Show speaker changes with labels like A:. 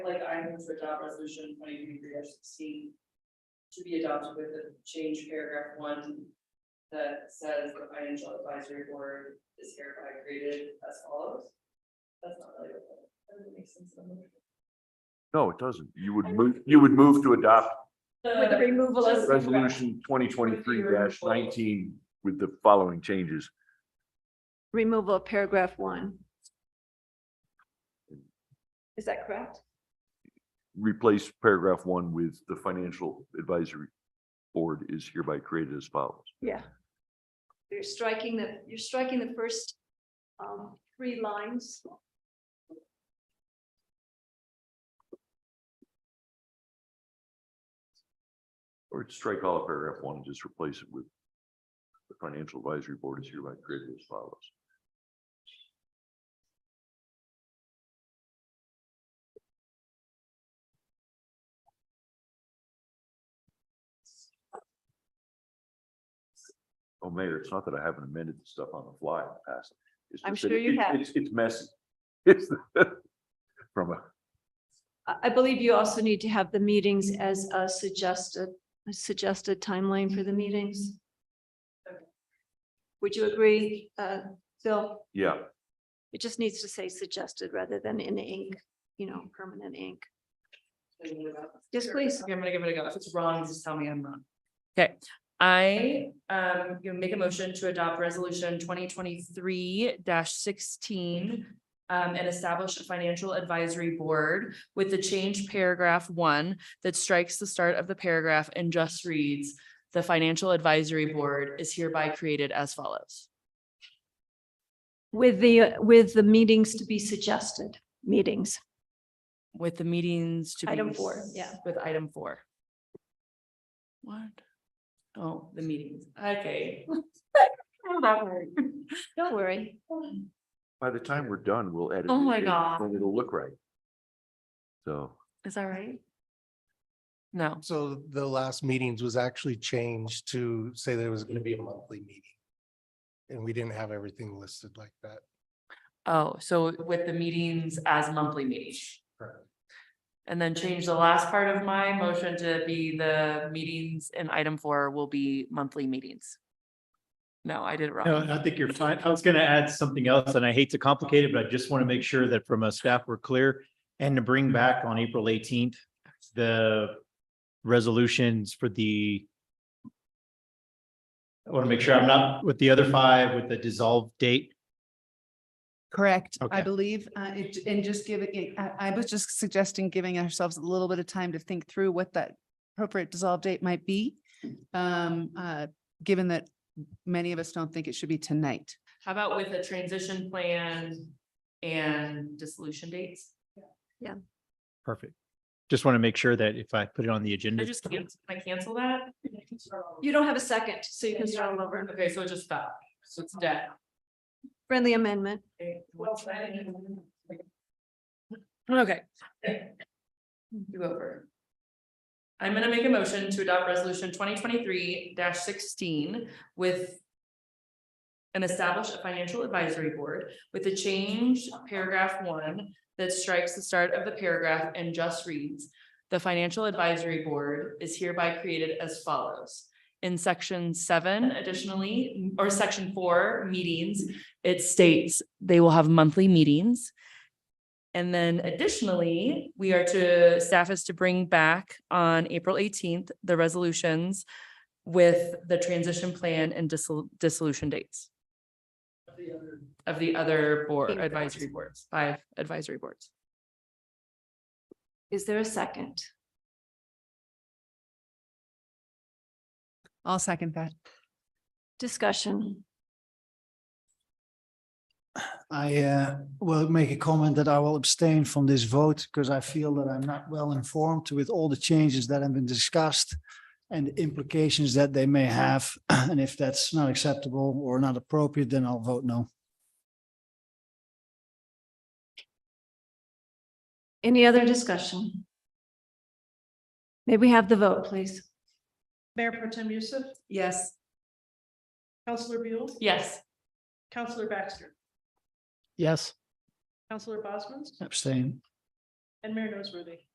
A: items to adopt resolution twenty twenty-three sixteen. To be adopted with the change paragraph one that says the financial advisory board is hereby created as follows. That's not really what, that doesn't make sense. in the motion.
B: No, it doesn't. You would move, you would move to adopt
C: With the removal of,
A: Right.
B: resolution twenty twenty-three nineteen with the following changes.
C: removal of paragraph one. Is that correct?
B: Replace paragraph one with the financial advisory board is hereby created as follows.
C: Yeah. You're striking the, you're striking the first um three lines.
B: Or strike all of paragraph one and just replace it with the financial advisory board is hereby created as follows. Oh, Mayor, it's not that I haven't amended the stuff on the fly in the past. It's
C: I'm
B: just that
C: sure you
B: it-
C: have.
B: It's, it's messy. It's from a,
C: I I believe you also need to have the meetings as a suggested, a suggested timeline for the meetings. Would you agree, uh, Phil?
B: yeah,
C: It just needs to say suggested rather than in ink, you know, permanent ink. Yes, please.
A: Okay, I'm gonna give it a go. If it's wrong, just tell me I'm wrong. Okay, I um gonna make a motion to adopt resolution twenty twenty-three sixteen. um, and establish a financial advisory board with the change paragraph one that strikes the start of the paragraph and just reads. The financial advisory board is hereby created as follows.
C: With the, with the meetings to be suggested, meetings.
A: With the meetings to be.
C: Item four, yeah.
A: With item four. What? Oh, the meetings, okay. That word.
C: Don't worry.
B: by the time we're done, we'll edit.
A: Oh
B: it
A: my
B: in,
A: God.
B: And it'll look right. So.
A: Is that right? No,
D: So the last meetings was actually changed to say there was going to be a monthly meeting. And we didn't have everything listed like that.
A: oh, so with the meetings as monthly meetings.
D: Correct.
A: And then change the last part of my motion to be the meetings and item four will be monthly meetings. No, I did it
E: No,
A: wrong.
E: I think you're fine. I was gonna add something else, and I hate to complicate it, but I just want to make sure that from a staff, we're clear. And to bring back on April eighteenth, the resolutions for the. I want to make sure I'm not with the other five with the dissolve date.
F: Correct, I
E: Okay.
F: believe, uh, it- and just give it, I, I was just suggesting giving ourselves a little bit of time to think through what that appropriate dissolve date might be. Um, uh, given that many of us don't think it should be tonight.
A: How about with a transition plan and dissolution dates?
E: Perfect. Just want to make sure that if I put it on the
A: Can I
E: agenda.
A: just cancel, can I cancel that?
C: You don't have a second, so you can start all over.
A: Okay, so it just stop. So it's dead.
C: Friendly amendment.
A: Okay, what's that? Okay. You over. I'm gonna make a motion to adopt resolution twenty twenty-three sixteen with. And establish a financial advisory board with a change paragraph one that strikes the start of the paragraph and just reads. The financial advisory board is hereby created as follows. In section seven additionally, or section four, meetings, it states they will have monthly meetings. And then additionally, we are to, staff is to bring back on April eighteenth, the resolutions with the transition plan and dissol- dissolution dates. Of the other board,
C: Being
A: advisory boards, five advisory boards.
C: Is there a second?
F: I'll second that.
C: Discussion.
G: I uh, will make a comment that I will abstain from this vote because I feel that I'm not well informed with all the changes that have been discussed and the implications that they may have. And if that's not acceptable or not appropriate, then I'll vote no.
C: Any other discussion? May we have the vote, please?
H: Mayor Pro Tem Youssef,
F: Yes.
H: Counselor Buell,
A: Yes.
H: Counselor Baxter,
G: Yes.
H: Counselor Bosman's,
G: Abstain.
H: and Mayor Noseworthy.